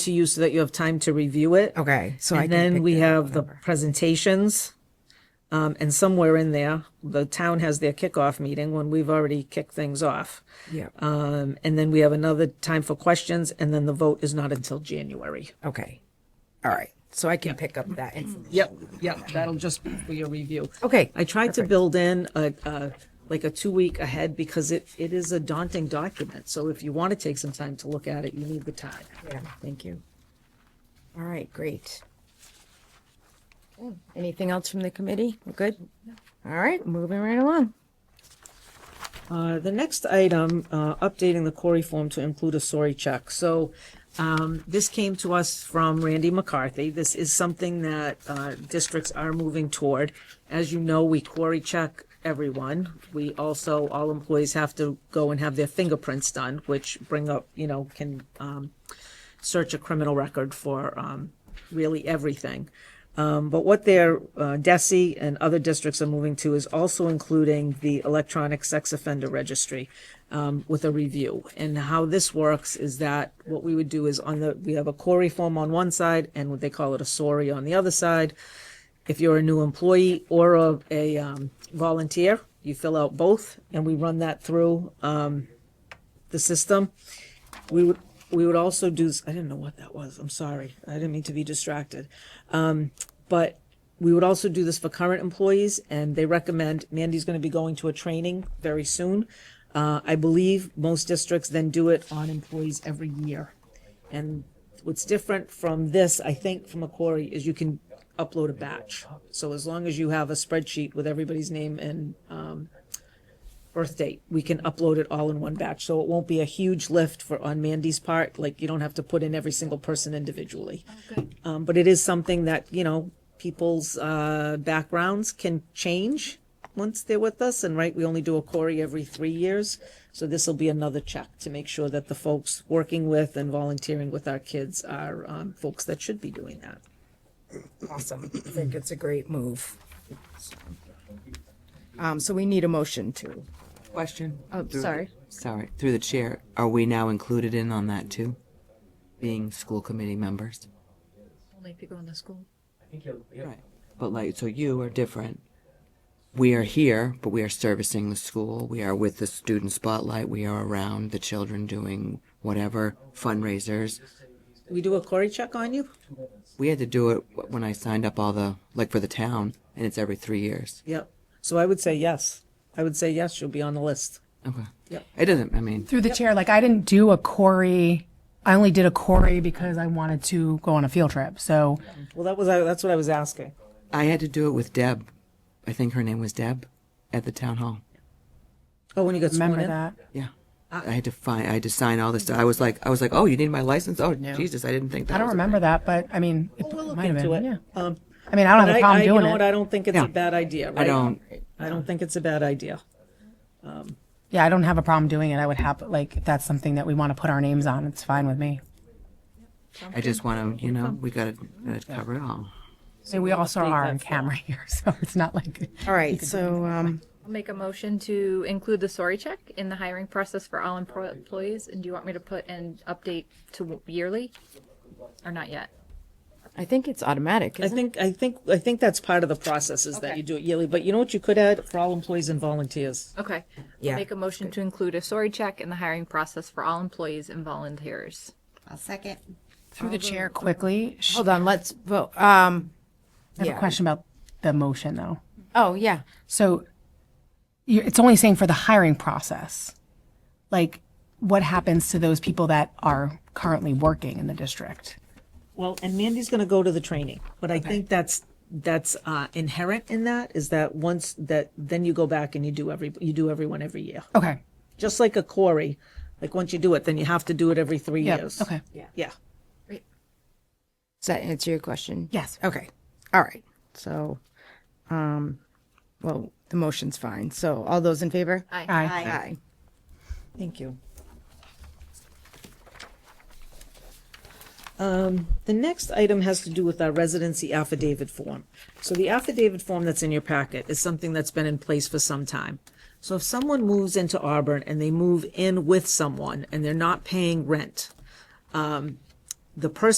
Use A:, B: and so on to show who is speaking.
A: to you so that you have time to review it.
B: Okay, so I
A: And
B: can
A: then
B: pick
A: we
B: that
A: have the presentations. Um, and somewhere in there, the town has their kickoff meeting when we've already kicked things off.
B: Yeah.
A: Um, and then we have another time for questions and then the vote is not until January.
B: Okay. All right. So I can pick up that information.
A: Yep, yep, that'll just be for your review.
B: Okay,
A: I tried to build in a, a, like a two-week ahead because it, it is a daunting document. So if you want to take some time to look at it, you need the time.
B: Yeah, thank you. All right, great. Okay, Anything else from the committee? We're good? All right, moving right along.
A: Uh, the next item, uh, updating the quarry form to include a sorry check. So, um, this came to us from Randy McCarthy. This is something that, uh, districts are moving toward. As you know, we quarry check everyone. We also, all employees have to go and have their fingerprints done, which bring up, you know, can, um, search a criminal record for, um, really everything. Um, but what their uh, DESE and other districts are moving to is also including the electronic sex offender registry um, with a review. And how this works is that what we would do is on the we have a query form on one side and what they call it a SORI on the other side. If you're a new employee or a, a um, volunteer, you fill out both, and we run that through um, the system. We would we would also do. I didn't know what that was. I'm sorry. I didn't mean to be distracted Um, but we would also do this for current employees and they recommend mandy's going to be going to a training very soon uh, i believe most districts then do it on employees every year and what's different from this i think from a quarry is you can upload a batch so as long as you have a spreadsheet with everybody's name and um, birth date we can upload it all in one batch so it won't be a huge lift for on mandy's part like you don't have to put in every single person individually um, but it is something that you know people's uh, backgrounds can change once they're with us and right we only do a query every three years so this will be another check to make sure that the folks working with and volunteering with our kids are um, folks that should be doing that
B: Awesome. I think it's a great move. Um, so we need a motion to,
C: Question.
B: oh, sorry.
C: Sorry, through the chair, are we now included in on that too? Being school committee members?
D: Only if you go in the school.
C: Right. But like, so you are different. We are here, but we are servicing the school. We are with the student spotlight. We are around the children doing whatever fundraisers.
A: we do a query check on you
C: We had to do it wh- when I signed up all the, like for the town, and it's every three years.
A: yep so i would say yes i would say yes you'll be on the list
C: Okay.
A: Yep.
C: It doesn't, I mean,
E: Through the chair, like I didn't do a Corey. I only did a Corey because I wanted to go on a field trip. So
A: well that was that's what i was asking
C: I had to do it with Deb. I think her name was Deb at the town hall.
A: oh when you got sworn
E: remember
A: in
E: that.
C: Yeah.
E: Uh,
C: I had to find. I had to sign all this stuff. I was like, I was like, oh, you need my license? Oh, Jesus, I didn't think that.
E: I don't
C: was a-
E: remember that, but I mean, it
A: we'll look
E: might have
A: into
E: been.
A: it.
E: Yeah.
A: um,
E: I mean, I don't
A: but
E: have a
A: I, I,
E: problem
A: you
E: doing
A: know
E: it.
A: what i don't think it's
C: Yeah.
A: a bad idea right
C: I don't.
A: i don't think it's a bad idea
E: yeah, I don't have a problem doing it. I would have like if that's something that we want to put our names on. It's fine with me.
C: I just want to, you know, we got to cover it all.
E: I mean, we also are on camera here, so it's not like
B: All right, so, um,
D: I'll make a motion to include the sorry check in the hiring process for all empro- employees. And do you want me to put an update to yearly? Or not yet?
B: I think it's automatic,
A: I
B: isn't it?
A: think, I think, I think that's part of the process is that
D: Okay.
A: you do it yearly, but you know what you could add for all employees and volunteers?
D: Okay. I'll
B: Yeah,
D: Make a motion to include a sorry check in the hiring process for all employees and volunteers.
F: I'll second.
E: through the chair quickly. sh-
A: Oh,
B: Hold on, let's vote. Um,
E: I have
B: yeah.
E: a question about the motion though.
B: oh, yeah.
E: So you it's only saying for the hiring process. Like, what happens to those people that are currently working in the district?
A: Well, and Mandy's gonna go to the training, but I think that's, that's, uh, inherent in that is that once that, then you go back and you do every, you do everyone every year.
E: Okay.
A: Just like a quarry, like once you do it, then you have to do it every three
E: Yep,
A: years.
E: okay.
A: Yeah.
B: Does that answer your question?
E: Yes.
B: Okay, all right. So, um, well, the motion's fine. So all those in favor?
D: Aye.
E: Aye.
B: Aye.
A: Thank you. Um, The next item has to do with our residency affidavit form. So the affidavit form that's in your packet is something that's been in place for some time. So if someone moves into Auburn and they move in with someone and they're not paying rent, um, the person